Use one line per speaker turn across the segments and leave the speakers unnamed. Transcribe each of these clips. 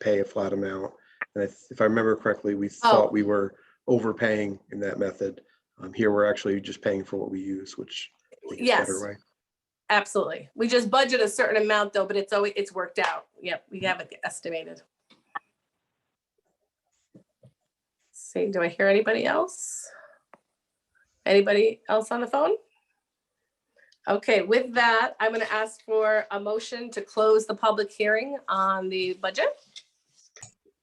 pay a flat amount. And if, if I remember correctly, we
Oh.
thought we were overpaying in that method. Um, here, we're actually just paying for what we use, which I think is a
Yes.
better way.
Absolutely. We just budget a certain amount though, but it's always, it's worked out. Yep, we have it estimated. See, do I hear anybody else? Anybody else on the phone? Okay, with that, I'm going to ask for a motion to close the public hearing on the budget.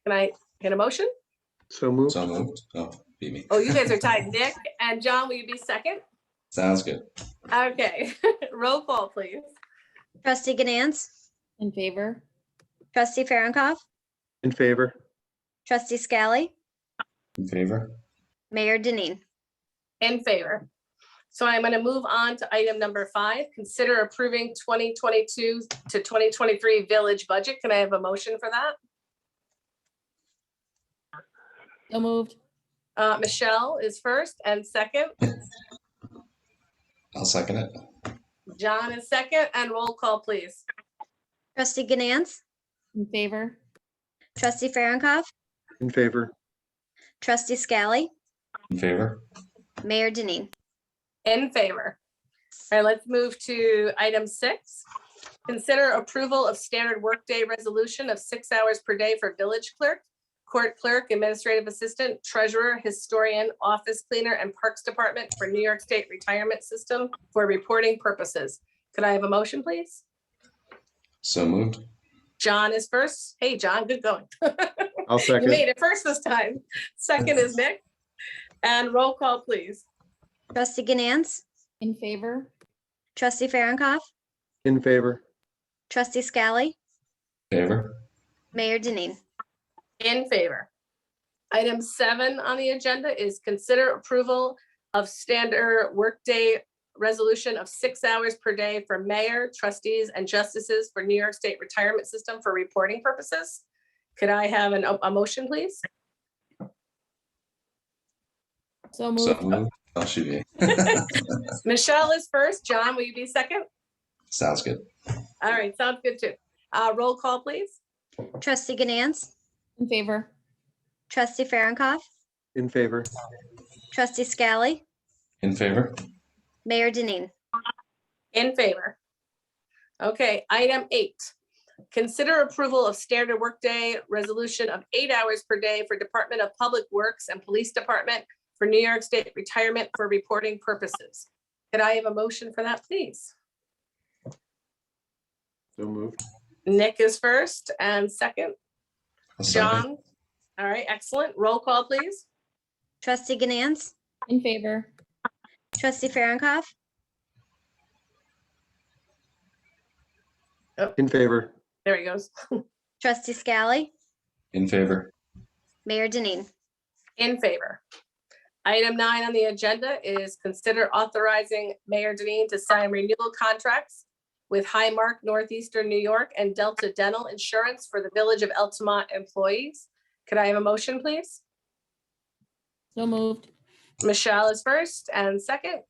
Can I get a motion?
So move.
So moved. Oh, beat me.
Oh, you guys are tied. Nick and John, will you be second?
Sounds good.
Okay, roll call, please.
Trustee Ganance,
In favor?
trustee Farronkov,
In favor?
trustee Scally,
In favor?
Mayor Denine.
In favor. So I'm going to move on to item number five, consider approving 2022 to 2023 village budget. Can I have a motion for that?
So moved.
Uh, Michelle is first and second,
I'll second it.
John is second, and roll call, please.
Trustee Ganance,
In favor?
trustee Farronkov,
In favor?
trustee Scally,
In favor?
Mayor Denine.
In favor. All right, let's move to item six. Consider approval of standard workday resolution of six hours per day for village clerk, court clerk, administrative assistant, treasurer, historian, office cleaner, and parks department for New York State Retirement System for reporting purposes. Could I have a motion, please?
So moved.
John is first. Hey, John, good going.
I'll
You
second.
made it first this time. Second is Nick. And roll call, please.
Trustee Ganance,
In favor?
trustee Farronkov,
In favor?
trustee Scally,
Favor?
Mayor Denine.
In favor. Item seven on the agenda is consider approval of standard workday resolution of six hours per day for mayor, trustees, and justices for New York State Retirement System for reporting purposes. Could I have an, a motion, please?
So
So
moved.
moved. Oh, should be.
Michelle is first. John, will you be second?
Sounds good.
All right, sounds good too. Uh, roll call, please.
Trustee Ganance,
In favor?
trustee Farronkov,
In favor?
trustee Scally,
In favor?
Mayor Denine.
In favor. Okay, item eight. Consider approval of standard workday resolution of eight hours per day for Department of Public Works and Police Department for New York State retirement for reporting purposes. Could I have a motion for that, please?
So moved.
Nick is first and second.
I'll second.
John? All right, excellent. Roll call, please.
Trustee Ganance,
In favor?
trustee Farronkov,
In favor?
There he goes.
trustee Scally,
In favor?
Mayor Denine.
In favor. Item nine on the agenda is consider authorizing Mayor Denine to sign renewal contracts with Highmark Northeastern New York and Delta Dental Insurance for the Village of Altamont employees. Could I have a motion, please?
So moved.
Michelle is first and second.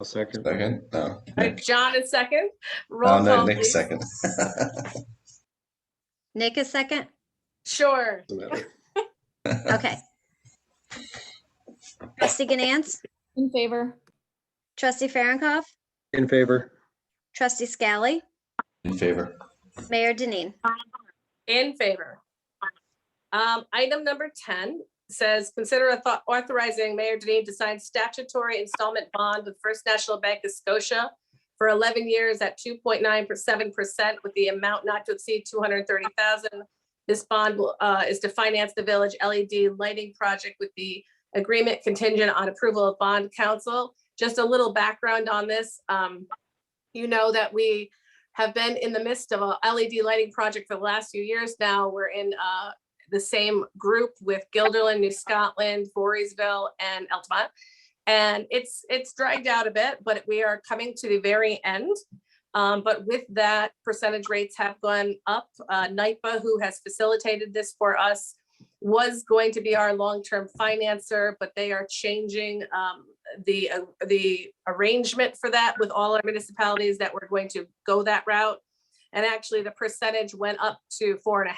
I'll second.
Second? No.
All right,
Nick.
John is second.
Oh,
Roll
no,
call, please.
Nick's second.
Nick is second?
Sure.
Doesn't matter.
Okay. Trustee Ganance,
In favor?
trustee Farronkov,
In favor?
trustee Scally,
In favor?
Mayor Denine.
In favor. Um, item number ten says, consider author- authorizing Mayor Denine to sign statutory installment bond with First National Bank of Scotia for eleven years at two point nine seven percent with the amount not to exceed two hundred and thirty thousand. This bond will, uh, is to finance the village LED lighting project with the agreement contingent on approval of bond council. Just a little background on this. Um, you know that we have been in the midst of a LED lighting project for the last few years now. We're in uh, the same group with Gilderland, New Scotland, Voorheesville, and Altamont. And it's, it's dragged out a bit, but we are coming to the very end. Um, But with that, percentage rates have gone up. Uh, NIPA, who has facilitated this for us, was going to be our long-term financer, but they are changing um, the, uh, the arrangement for that with all our municipalities that we're going to go that route. And actually, the percentage went up to four and a